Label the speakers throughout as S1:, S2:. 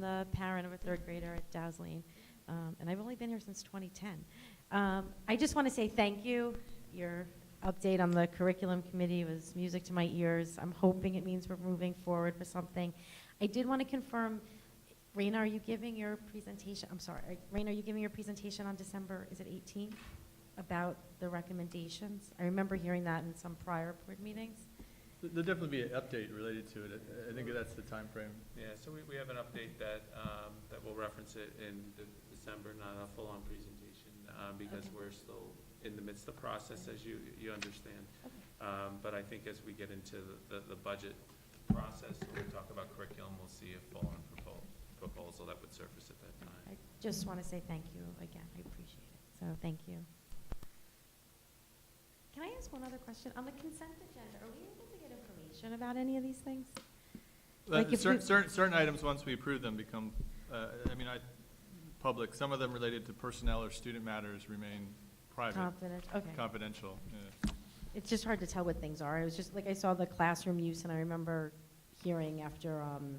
S1: the parent of a third grader at Dowsleen, um, and I've only been here since 2010. Um, I just want to say thank you. Your update on the curriculum committee was music to my ears. I'm hoping it means we're moving forward for something. I did want to confirm, Raina, are you giving your presentation, I'm sorry, are- Raina, are you giving your presentation on December, is it 18? About the recommendations? I remember hearing that in some prior board meetings.
S2: There'll definitely be an update related to it. I- I think that's the timeframe.
S3: Yeah, so we, we have an update that, um, that will reference it in de- December, not a full-on presentation, uh, because
S1: Okay.
S3: we're still in the midst of the process, as you, you understand.
S1: Okay.
S3: Um, but I think as we get into the- the, the budget process, when we talk about curriculum, we'll see a full-on proposal, proposal that would surface at that time.
S1: I just want to say thank you again. I appreciate it. So thank you. Can I ask one other question? On the consent agenda, are we able to get information about any of these things? Like
S2: But
S1: if
S2: Certain,
S1: we-
S2: certain- certain items, once we approve them, become, uh, I mean, I, public. Some of them related to personnel or student matters remain private,
S1: Confident, okay.
S2: confidential. yeah.
S1: It's just hard to tell what things are. It was just, like, I saw the classroom use, and I remember hearing after um,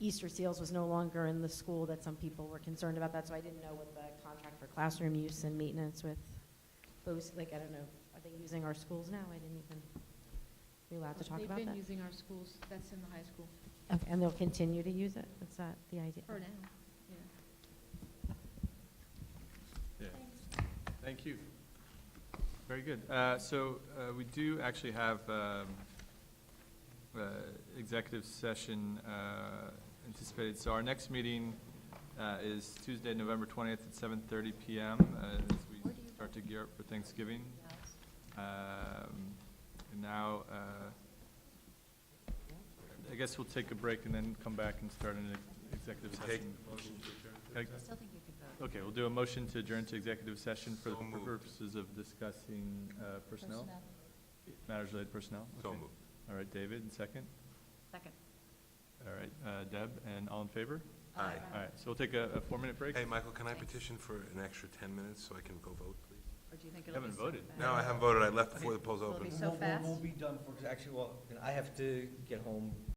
S1: Easter Seals was no longer in the school that some people were concerned about that, so I didn't know what the contract for classroom use and maintenance with those, like, I don't know, are they using our schools now? I didn't even, we allowed to talk about that?
S4: They've been using our schools, that's in the high school,
S1: Okay, and they'll continue to use it? Is that the idea?
S4: for now, yeah.
S2: Yeah. Thank you. Very good. Uh, So uh, we do actually have um, uh, executive session uh, anticipated. So our next meeting uh, is Tuesday, November 20th at 7:30 PM uh, as we start to gear up for Thanksgiving. Um, And now, uh, I guess we'll take a break and then come back and start an ex- executive session. Okay. Okay, we'll do a motion to adjourn to executive session for the purposes of discussing uh, personnel, matters related to personnel.
S5: So
S2: Okay.
S5: moved.
S2: All right, David, and second?
S6: Second.
S2: All right, uh, Deb, and all in favor?
S5: Aye.
S2: All right, so we'll take a a four-minute break.
S5: Hey, Michael, can I petition for an extra 10 minutes so I can go vote, please?
S6: Or do you think
S2: You
S6: it'll be?
S2: haven't
S6: so
S2: voted.
S6: fast?
S5: No, I haven't voted, I left before the polls
S6: Will it
S5: opened.
S6: be so
S7: We'll- we'll-
S6: fast?
S7: We'll be done for, actually, well, I have to get home